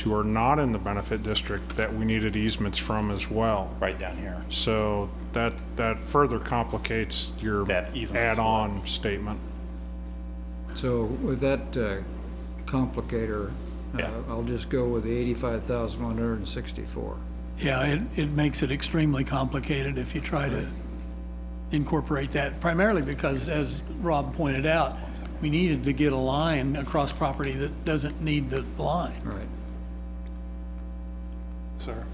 who are not in the benefit district that we needed easements from as well. right down here. So that, that further complicates your That easement split. add-on statement. So with that uh, complicator, uh, Yeah. I'll just go with the 85,164. Yeah, it, it makes it extremely complicated if you try to incorporate that, primarily because, as Rob pointed out, we needed to get a line across property that doesn't need the line. All right. Sir,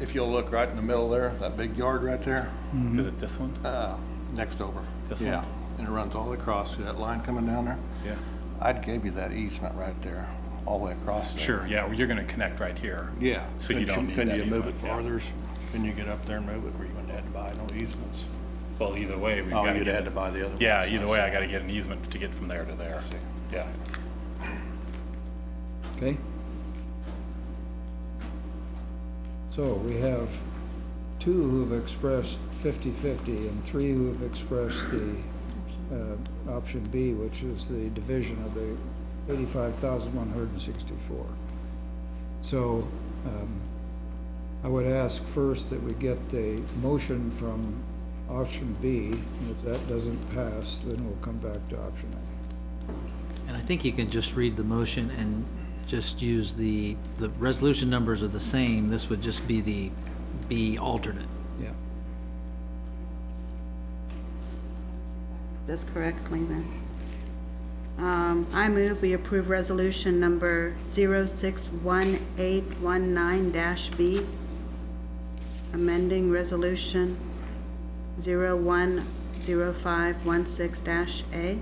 if you'll look right in the middle there, that big yard right there, Is Mm-hmm. it this one? Uh, next over. This one? Yeah, and it runs all the way across, see that line coming down there? Yeah. I'd give you that easement right there, all the way across there. Sure, yeah, well, you're gonna connect right here. Yeah. So you But don't need Can that you move it easement, yeah. farther? Can you get up there and move it where you wouldn't have to buy no easements? Well, either way, we've Oh, gotta you'd get. had to buy the other Yeah, ones, I either way, I see. gotta get an easement to get from there to there. see. Yeah. Okay? So we have two who've expressed 50/50 and three who've expressed the uh, option B, which is the division of the 85,164. So um, I would ask first that we get a motion from option B, and if that doesn't pass, then we'll come back to option A. And I think you can just read the motion and just use the, the resolution numbers are the same, this would just be the B alternate. Yeah. this correctly then. Um, I move we approve resolution number 061819-B, amending resolution 010516-A.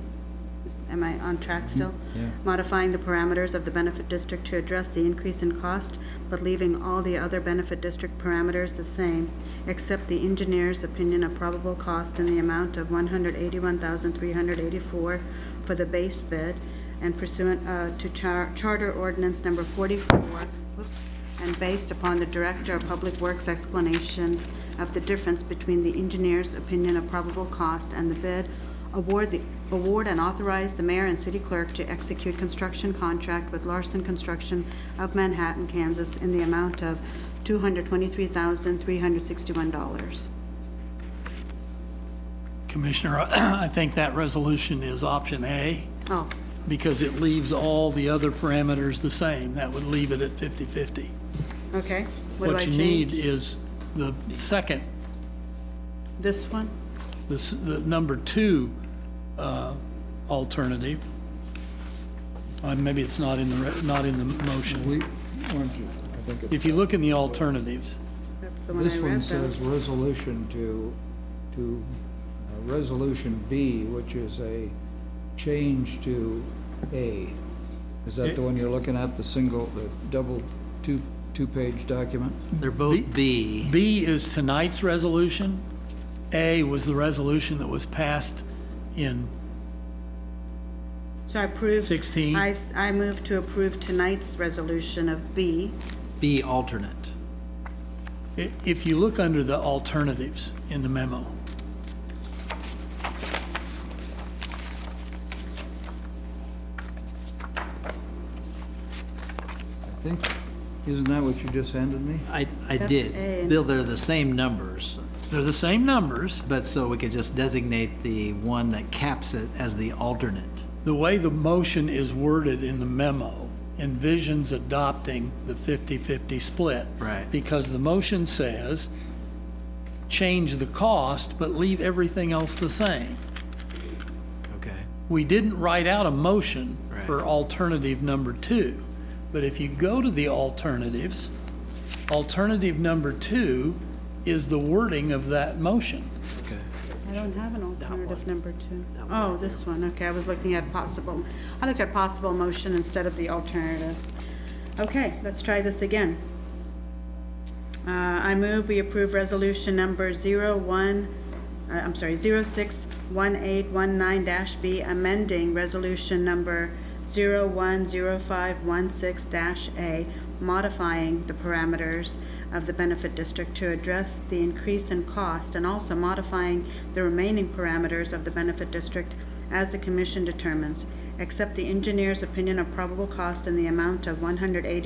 Am I on track still? yeah. Modifying the parameters of the benefit district to address the increase in cost, but leaving all the other benefit district parameters the same, except the engineer's opinion of probable cost in the amount of one hundred eighty-one thousand three hundred eighty-four for the base bid and pursuant uh, to char- Charter Ordinance Number forty-four, whoops, and based upon the Director of Public Works explanation of the difference between the engineer's opinion of probable cost and the bid, award the, award and authorize the mayor and city clerk to execute construction contract with Larson Construction of Manhattan, Kansas, in the amount of two hundred twenty-three thousand, three hundred sixty-one dollars. Commissioner, I think that resolution is option A, Oh, because it leaves all the other parameters the same. That would leave it at 50/50. okay. What do I you need change? is the second This one? this, the number two uh, alternative, uh, maybe it's not in the, re- not in the motion. We, why don't you, I think it's. If you look in the alternatives, That's the one I This one read though. says resolution to, to, uh, resolution B, which is a change to A. Is that the one you're looking at, the single, the double, two, two-page document? They're both B, B is tonight's resolution, A was the resolution that was passed in, So I approve. 16. I, s- I move to approve tonight's resolution of B. B alternate. i- if you look under the alternatives in the memo, I think, isn't that what you just handed me? I, I That's A. did. Bill, they're the same numbers, they're the same numbers. but so we could just designate the one that caps it as the alternate. The way the motion is worded in the memo envisions adopting the 50-50 split. Right. Because the motion says, change the cost, but leave everything else the same. Okay. We didn't write out a motion for Right. alternative number two. But if you go to the alternatives, alternative number two is the wording of that motion. Okay. I don't have an alternative number two. Oh, this one, okay, I was looking at possible, I looked at possible motion instead of the alternatives. Okay, let's try this again. Uh, I move we approve resolution number zero one, uh, I'm sorry, zero six one eight one nine dash B, amending resolution number zero one zero five one six dash A, modifying the parameters of the benefit district to address the increase in cost and also modifying the remaining parameters of the benefit district as the commission determines, except the engineer's opinion of probable cost in the amount of one hundred eighty